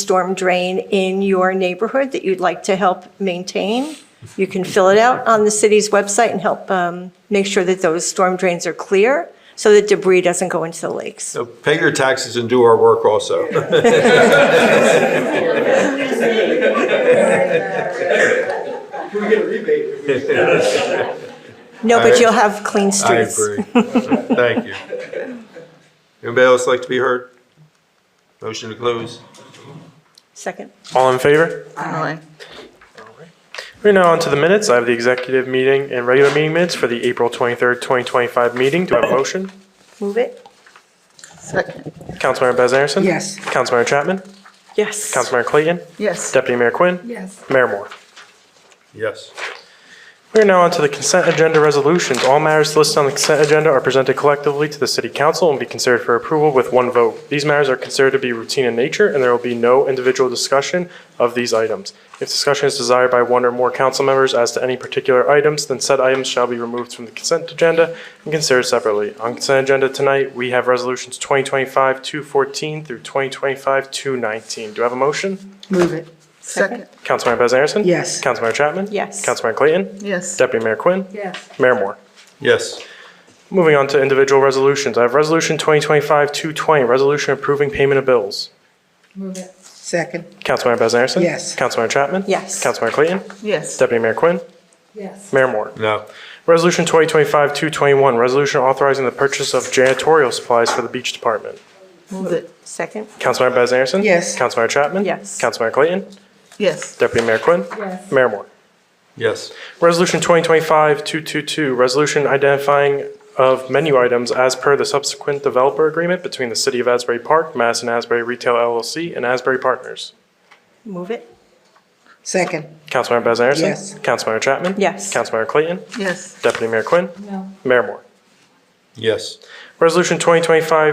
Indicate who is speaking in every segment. Speaker 1: storm drain in your neighborhood that you'd like to help maintain, you can fill it out on the city's website and help um, make sure that those storm drains are clear so that debris doesn't go into the lakes.
Speaker 2: So pay your taxes and do our work also.
Speaker 3: We get a rebate if we
Speaker 1: No, but
Speaker 2: I-
Speaker 1: you'll have clean
Speaker 2: I
Speaker 1: streets.
Speaker 2: agree. Thank you. Anybody else like to be heard? Motion to close.
Speaker 1: Second.
Speaker 4: All in favor?
Speaker 5: Aye.
Speaker 4: We're now on to the minutes. I have the executive meeting and regular meeting minutes for the April 23rd, 2025 meeting. Do I have a motion?
Speaker 1: Move it?
Speaker 5: Second.
Speaker 4: Councilmember Bez Anderson?
Speaker 5: Yes.
Speaker 4: Councilmember Chapman?
Speaker 1: Yes.
Speaker 4: Councilmember Clayton?
Speaker 5: Yes.
Speaker 4: Deputy Mayor Quinn?
Speaker 5: Yes.
Speaker 4: Mayor Moore?
Speaker 2: Yes.
Speaker 4: We are now on to the consent agenda resolutions. All matters listed on the consent agenda are presented collectively to the city council and be considered for approval with one vote. These matters are considered to be routine in nature, and there will be no individual discussion of these items. If discussion is desired by one or more council members as to any particular items, then said items shall be removed from the consent agenda and considered separately. On consent agenda tonight, we have resolutions 2025-214 through 2025-219. Do I have a motion?
Speaker 5: Move it. Second.
Speaker 4: Councilmember Bez Anderson?
Speaker 5: Yes.
Speaker 4: Councilmember Chapman?
Speaker 1: Yes.
Speaker 4: Councilmember Clayton?
Speaker 5: Yes.
Speaker 4: Deputy Mayor Quinn?
Speaker 5: Yes.
Speaker 4: Mayor Moore?
Speaker 2: Yes.
Speaker 4: Moving on to individual resolutions. I have Resolution 2025-220, resolution approving payment of bills.
Speaker 5: Move it. Second.
Speaker 4: Councilmember Bez Anderson?
Speaker 5: Yes.
Speaker 4: Councilmember Chapman?
Speaker 1: Yes.
Speaker 4: Councilmember Clayton?
Speaker 5: Yes.
Speaker 4: Deputy Mayor Quinn?
Speaker 5: Yes.
Speaker 4: Mayor Moore?
Speaker 2: No.
Speaker 4: Resolution 2025-221, resolution authorizing the purchase of janitorial supplies for the beach department.
Speaker 5: Move it.
Speaker 1: Second.
Speaker 4: Councilmember Bez Anderson?
Speaker 5: Yes.
Speaker 4: Councilmember Chapman?
Speaker 1: Yes.
Speaker 4: Councilmember Clayton?
Speaker 5: Yes.
Speaker 4: Deputy Mayor Quinn?
Speaker 5: Yes.
Speaker 4: Mayor Moore?
Speaker 2: Yes.
Speaker 4: Resolution 2025-222, resolution identifying of menu items as per the subsequent developer agreement between the City of Asbury Park, Mass and Asbury Retail LLC, and Asbury Partners.
Speaker 1: Move it?
Speaker 5: Second.
Speaker 4: Councilmember Bez Anderson?
Speaker 5: Yes.
Speaker 4: Councilmember Chapman?
Speaker 1: Yes.
Speaker 4: Councilmember Clayton?
Speaker 5: Yes.
Speaker 4: Deputy Mayor Quinn?
Speaker 5: No.
Speaker 4: Mayor Moore?
Speaker 2: Yes.
Speaker 4: Resolution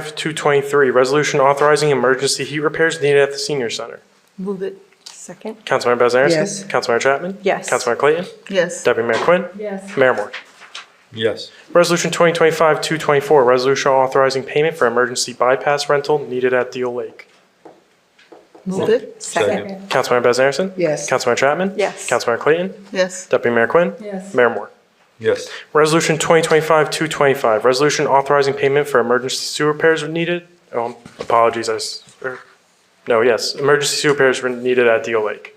Speaker 4: 2025-223, resolution authorizing emergency heat repairs needed at the senior center.
Speaker 5: Move it.
Speaker 1: Second.
Speaker 4: Councilmember Bez Anderson?
Speaker 5: Yes.
Speaker 4: Councilmember Chapman?
Speaker 1: Yes.
Speaker 4: Councilmember Clayton?
Speaker 5: Yes.
Speaker 4: Deputy Mayor Quinn?
Speaker 5: Yes.
Speaker 4: Mayor Moore?
Speaker 2: Yes.
Speaker 4: Resolution 2025-224, resolution authorizing payment for emergency bypass rental needed at Deal Lake.
Speaker 5: Move it.
Speaker 1: Second.
Speaker 4: Councilmember Bez Anderson?
Speaker 5: Yes.
Speaker 4: Councilmember Chapman?
Speaker 1: Yes.
Speaker 4: Councilmember Clayton?
Speaker 5: Yes.
Speaker 4: Deputy Mayor Quinn?
Speaker 5: Yes.
Speaker 4: Mayor Moore?
Speaker 2: Yes.
Speaker 4: Resolution 2025-225, resolution authorizing payment for emergency sewer repairs when needed. Oh, apologies, I, s- er, no, yes, emergency sewer repairs were needed at Deal Lake.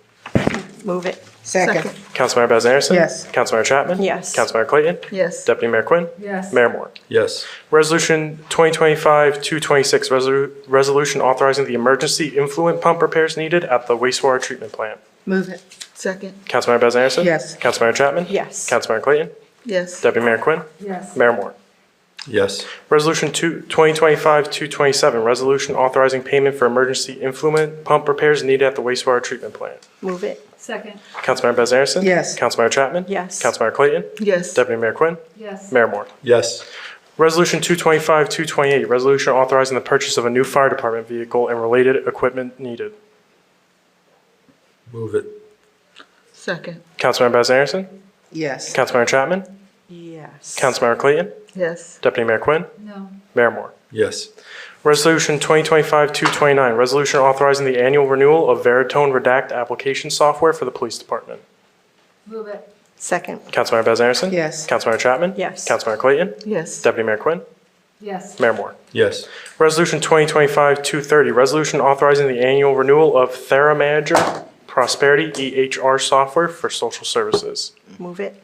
Speaker 1: Move it?
Speaker 5: Second.
Speaker 4: Councilmember Bez Anderson?
Speaker 5: Yes.
Speaker 4: Councilmember Chapman?
Speaker 1: Yes.
Speaker 4: Councilmember Clayton?
Speaker 5: Yes.
Speaker 4: Deputy Mayor Quinn?
Speaker 5: Yes.
Speaker 4: Mayor Moore?
Speaker 2: Yes.
Speaker 4: Resolution 2025-226, resolu- resolution authorizing the emergency influent pump repairs needed at the wastewater treatment plant.
Speaker 5: Move it. Second.
Speaker 4: Councilmember Bez Anderson?
Speaker 5: Yes.
Speaker 4: Councilmember Chapman?
Speaker 1: Yes.
Speaker 4: Councilmember Clayton?
Speaker 5: Yes.
Speaker 4: Deputy Mayor Quinn?
Speaker 5: Yes.
Speaker 4: Mayor Moore?
Speaker 2: Yes.
Speaker 4: Resolution two- 2025-227, resolution authorizing payment for emergency influent pump repairs needed at the wastewater treatment plant.
Speaker 1: Move it?
Speaker 6: Second,
Speaker 4: Councilmember Bez Anderson?
Speaker 5: Yes.
Speaker 4: Councilmember Chapman?
Speaker 1: Yes.
Speaker 4: Councilmember Clayton?
Speaker 5: Yes.
Speaker 4: Deputy Mayor Quinn?
Speaker 6: yes.
Speaker 4: Mayor Moore?
Speaker 2: Yes.
Speaker 4: Resolution 225-228, resolution authorizing the purchase of a new fire department vehicle and related equipment needed.
Speaker 2: Move it.
Speaker 5: Second.
Speaker 4: Councilmember Bez Anderson?
Speaker 5: Yes.
Speaker 4: Councilmember Chapman?
Speaker 1: Yes.
Speaker 4: Councilmember Clayton?
Speaker 5: Yes.
Speaker 4: Deputy Mayor Quinn?
Speaker 6: No,
Speaker 4: Mayor Moore?
Speaker 2: Yes.
Speaker 4: Resolution 2025-229, resolution authorizing the annual renewal of Veritone Redact application software for the police department.
Speaker 6: move it,
Speaker 1: Second.
Speaker 4: Councilmember Bez Anderson?
Speaker 5: Yes.
Speaker 4: Councilmember Chapman?
Speaker 1: Yes.
Speaker 4: Councilmember Clayton?
Speaker 5: Yes.
Speaker 4: Deputy Mayor Quinn?
Speaker 6: yes.
Speaker 4: Mayor Moore?
Speaker 2: Yes.
Speaker 4: Resolution 2025-230, resolution authorizing the annual renewal of TheraManager Prosperity EHR software for social services.
Speaker 1: Move it?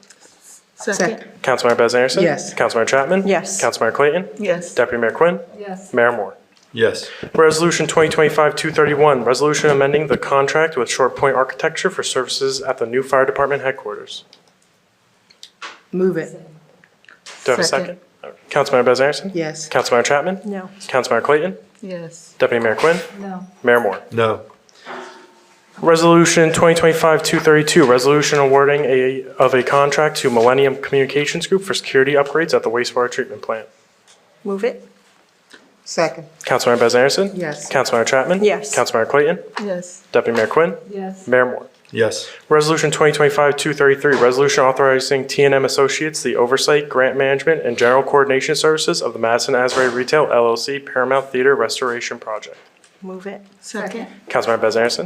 Speaker 5: Second.
Speaker 4: Councilmember Bez Anderson?
Speaker 5: Yes.
Speaker 4: Councilmember Chapman?
Speaker 1: Yes.
Speaker 4: Councilmember Clayton?
Speaker 5: Yes.
Speaker 4: Deputy Mayor Quinn?
Speaker 6: Yes,
Speaker 4: Mayor Moore?
Speaker 2: Yes.
Speaker 4: Resolution 2025-231, resolution amending the contract with Short Point Architecture for services at the new fire department headquarters.
Speaker 5: Move it.
Speaker 4: Do I have a second? Councilmember Bez Anderson?
Speaker 5: Yes.
Speaker 4: Councilmember Chapman?
Speaker 1: No.
Speaker 4: Councilmember Clayton?
Speaker 5: Yes.
Speaker 4: Deputy Mayor Quinn?
Speaker 6: no,
Speaker 4: Mayor Moore?
Speaker 2: No.
Speaker 4: Resolution 2025-232, resolution awarding a, of a contract to Millennium Communications Group for security upgrades at the wastewater treatment plant.
Speaker 1: Move it?
Speaker 5: Second.
Speaker 4: Councilmember Bez Anderson?
Speaker 5: Yes.
Speaker 4: Councilmember Chapman?
Speaker 1: Yes.
Speaker 4: Councilmember Clayton?
Speaker 5: Yes.
Speaker 4: Deputy Mayor Quinn?
Speaker 6: yes,
Speaker 4: Mayor Moore?
Speaker 2: Yes.
Speaker 4: Resolution 2025-233, resolution authorizing t and m Associates the oversight, grant management, and general coordination services of the Madison Asbury Retail LLC Paramount Theater Restoration Project.
Speaker 1: move it.
Speaker 5: Second.
Speaker 4: Councilmember Bez Anderson.